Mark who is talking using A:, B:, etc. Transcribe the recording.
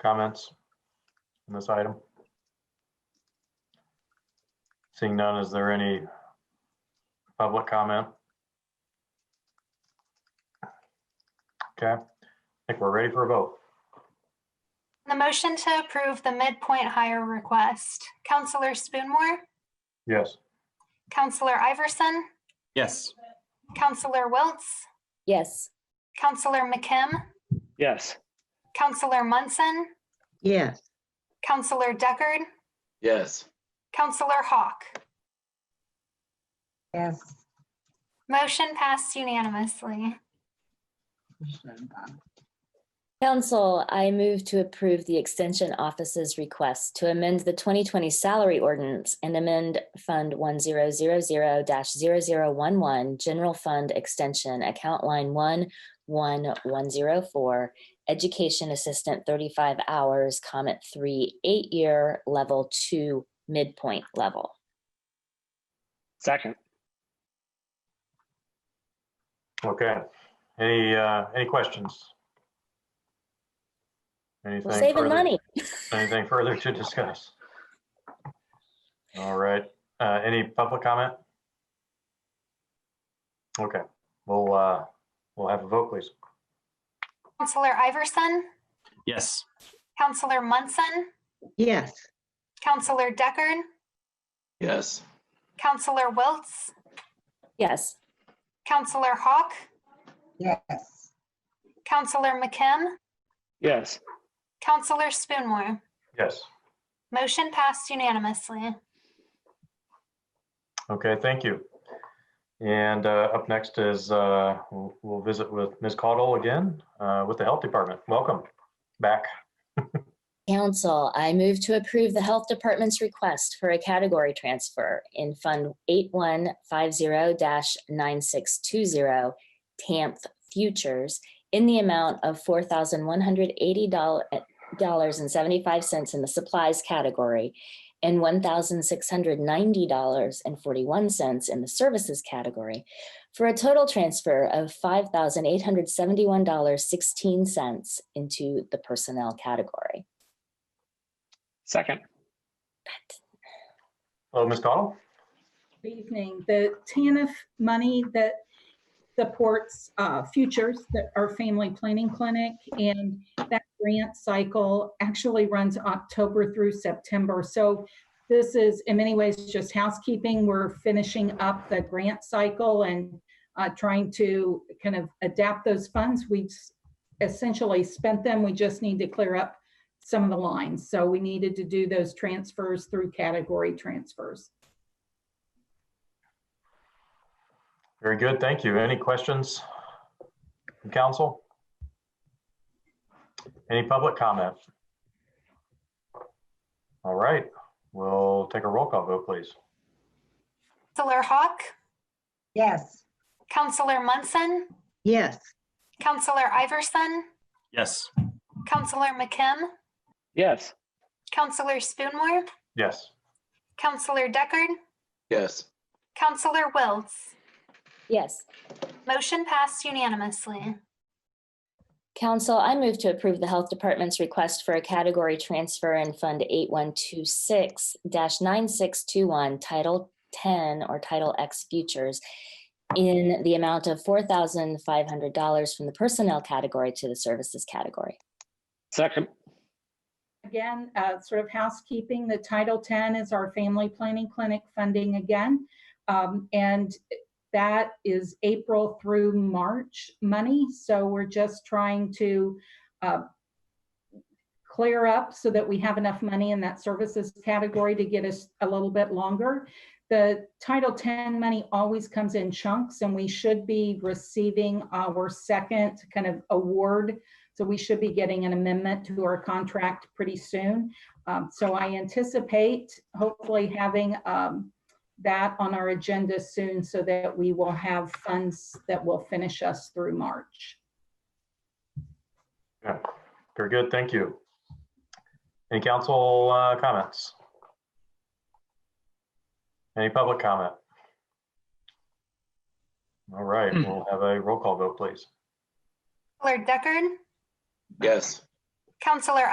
A: comments on this item? Seeing none, is there any public comment? Okay, I think we're ready for a vote.
B: The motion to approve the midpoint hire request, Counselor Spoonmore,
A: Yes.
B: Counselor Iverson,
C: Yes.
B: Counselor Wiltz,
D: Yes.
B: Counselor McKim,
E: Yes.
B: Counselor Munson,
F: yes,
B: Counselor Deckard,
C: Yes.
B: Counselor Hawk.
G: yes,
B: Motion passed unanimously.
D: Council, I move to approve the Extension Office's request to amend the 2020 salary ordinance and amend Fund 1000-0011, General Fund Extension, Account Line 11104, Education Assistant 35 hours, Comment 3, eight-year, Level 2, midpoint level.
E: Second.
A: Okay. Any, uh, any questions?
D: We're
A: Anything
D: saving
A: further-
D: money.
A: Anything further to discuss? All right, uh, any public comment? Okay, we'll, uh, we'll have a vote, please.
B: Counselor Iverson,
C: Yes.
B: Counselor Munson,
F: yes,
B: Counselor Deckard,
C: Yes.
B: Counselor Wiltz,
D: Yes.
B: Counselor Hawk,
G: yes.
B: Counselor McKim,
E: Yes.
B: Counselor Spoonmore.
A: Yes.
B: Motion passed unanimously.
A: Okay, thank you. And uh, up next is, uh, we'll we'll visit with Ms. Caudle again uh, with the Health Department. Welcome back.
D: Council, I move to approve the Health Department's request for a category transfer in Fund 8150-9620 TAMP Futures in the amount of $4,180.75 in the supplies category and $1,690.41 in the services category for a total transfer of $5,871.16 into the personnel category.
E: Second.
A: Hello, Ms. Caudle?
H: Good evening. The TANF money that supports uh, Futures, that our family planning clinic, and that grant cycle actually runs October through September. So this is in many ways just housekeeping. We're finishing up the grant cycle and uh, trying to kind of adapt those funds. We essentially spent them. We just need to clear up some of the lines. So we needed to do those transfers through category transfers.
A: Very good, thank you. Any questions from council? Any public comment? All right, we'll take a roll call vote, please.
B: Counselor Hawk,
G: Yes.
B: Counselor Munson,
F: yes.
B: Counselor Iverson,
C: Yes.
B: Counselor McKim,
E: Yes.
B: Counselor Spoonmore,
A: Yes,
B: Counselor Deckard,
C: Yes.
B: Counselor Wiltz.
D: Yes.
B: Motion passed unanimously.
D: Council, I move to approve the Health Department's request for a category transfer in Fund 8126-9621, Title 10 or Title X Futures, in the amount of $4,500 from the Personnel category to the Services category.
E: Second.
H: Again, uh, sort of housekeeping, the Title 10 is our family planning clinic funding again. Um, And that is April through March money. So we're just trying to uh, clear up so that we have enough money in that services category to get us a little bit longer. The Title 10 money always comes in chunks and we should be receiving our second kind of award so we should be getting an amendment to our contract pretty soon. Um, So I anticipate hopefully having um, that on our agenda soon so that we will have funds that will finish us through March.
A: yeah, very good, thank you. Any council uh, comments? Any public comment? All right, we'll have a roll call vote, please.
B: Counselor Deckard,
C: Yes.
B: Counselor